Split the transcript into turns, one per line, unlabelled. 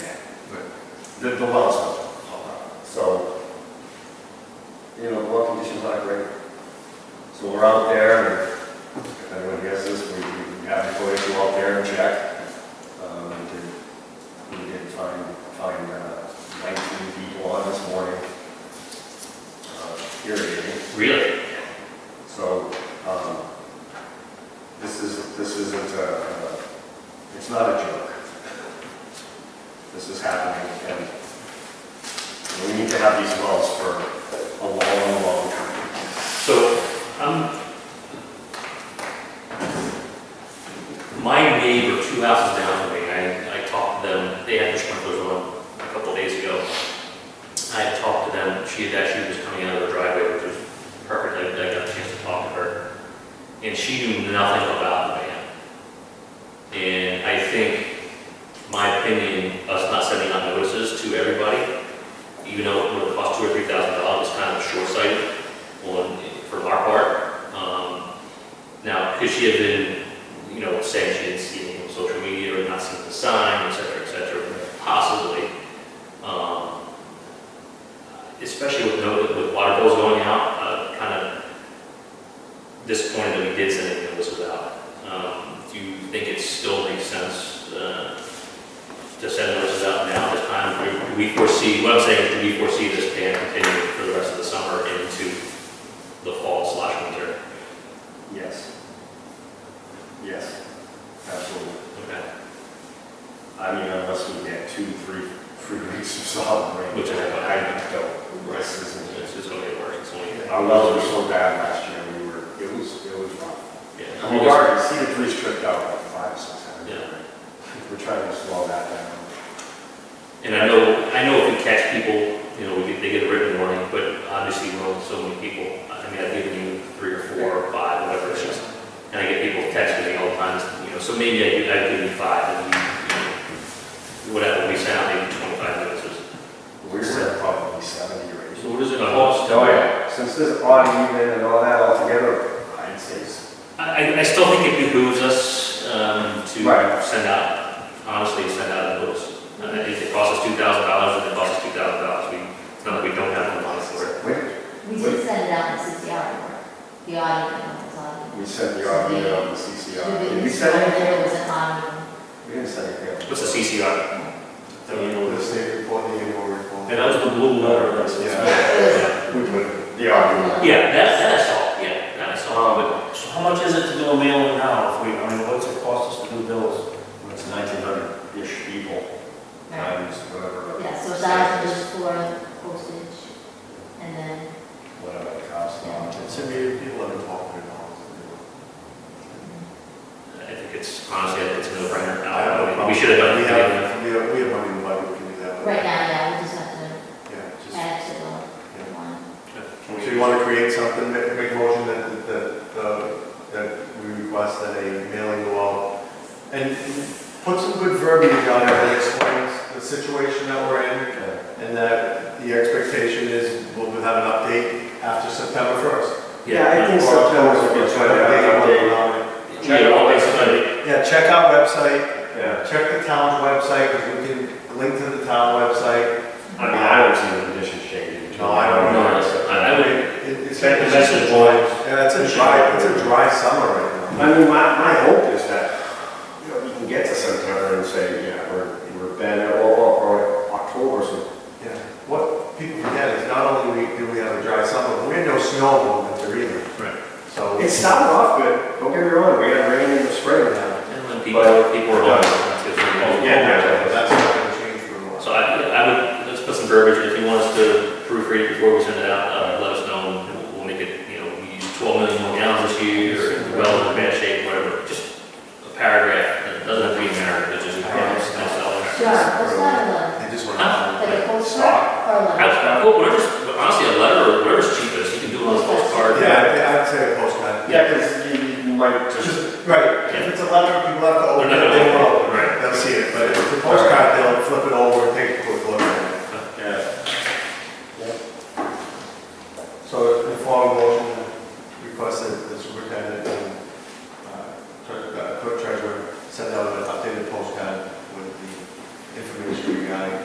The, the well's open. So, you know, well conditions aren't great. So we're out there, and if anyone hears this, we, we have employees go out there and check. Um, we did, we did find, find uh, nineteen people on this morning. uh, Irrigating.
Really?
So, um, this is, this isn't a, a- it's not a joke. This is happening, and we need to have these wells for a long, long time.
So, um, my neighbor, two houses down from me, I, I talked to them, they had their sprinklers on a couple days ago. I had talked to them, she had actually was coming out of the driveway, which was perfect, I, I got a chance to talk to her. And she knew nothing about the man. And I think, my opinion, us not sending out notices to everybody, even though it would cost two or three thousand dollars, is kind of short-sighted on, for our part. Um, Now, could she have been, you know, saying she didn't see anything on social media or not seen the sign, et cetera, et cetera, possibly. Um, Especially with, no- with water bills going out, uh, kind of disappointed that we did send a notice without. Um, Do you think it still makes sense uh, to send notices out now at this time? Do- Do we foresee, what I'm saying is, do we foresee this ban continuing for the rest of the summer into the fall slash winter.
Yes. Yes, absolutely.
Okay.
I mean, unless we get two, three, three weeks of solid rain.
Which I-
I don't, this isn't it.
It's just gonna get worse, it's only.
Our wells were so bad last year, we were, it was, it was rough.
Yeah.
We are, see the police tripped out like five, six times.
Yeah.
We're trying to slow that down.
And I know, I know if we catch people, you know, we get, they get a written warning, but obviously we're only so many people. I mean, I've given you three or four or five, whatever it is. And I get people texting me all the time, you know, so maybe I give, I give you five and you, you know, whatever, we send out maybe twenty-five notices.
We're still probably seventy or eighty.
So what does it cost?
Oh, yeah, since this odd even and all that all together, I'd say, s-
I, I- I still think it behooves us um,
Right.
to send out, honestly, send out a notice. Uh, If it costs us two thousand dollars, then it costs us two thousand dollars. We, it's not that we don't have the money for it.
wait,
We did send it out in sixty hour, the audio, it was on.
we sent the odd even on the CCR. Did we
It
send anything?
was on,
We didn't send anything.
What's a CCR?
The state report, the annual report.
Yeah, that was the blue letter.
yeah,
Yeah.
it
We put the odd
was.
Yeah, that, that's all, yeah, that's all,
Oh,
but
So how much is it to do a mailing now, if we, I mean, what's it cost us to do bills?
even, it's nineteen hundred-ish people,
Right.
times whatever. the-
Yeah, so that was just for postage, and then,
Whatever it costs, um,
It's a million people that are talking about
I think it's, honestly, I think it's a no-brainer.
I have no
Uh,
problem.
We should have done
We
it.
have, we have, we have money in the budget, we can do that.
right now, yeah, we just have to
Yeah, just,
add to the one.
so you want to create something, make, make a motion that, that, uh, that we request that a mailing go out. And put some good verbiage on it that explains the situation that we're in and that the expectation is we'll have an update after September first.
I think so. September would be a good time.
Yeah, well, basically,
Yeah, check our website,
Yeah,
Check the town website, because we can link to the town website.
I mean, I don't see the conditions changing.
No, I don't
know. I- I would-
It- It's
Check the
it's just a
message
dry-
boards.
Yeah, it's a dry, it's a dry summer right now.
I mean, my, my hope is that, you know, we can get to September and say, yeah, we're, we're better, or, or or October, so.
Yeah. What people forget is not only we- do we have a dry summer, but we had no snow in the winter either,
right.
so.
It started off good, don't get me wrong, we had rain in the spring now.
And when people, people are on, that's good.
Yeah, That's not gonna change for a while.
So I, I would, let's put some verbiage, if you want us to proofread it before we send it out, uh, let us know, and we'll- we'll make it, you know, we use twelve million more gallons this year, or well, in bad shape, whatever, just a paragraph, it doesn't have to be a narrative, it's just, you know, it's not
Sure, that's not a letter,
I just want
like
to.
a postcard or a letter.
Well, whatever's, honestly, a letter, or whatever's cheapest, you can do it on a postcard.
Yeah, I'd- I'd say a postcard.
Yeah, because you, you might just,
Right, if it's a letter, people have to
They're
open
not gonna
it, they will.
open it, right.
They'll see it, but if it's a postcard, they'll flip it uh,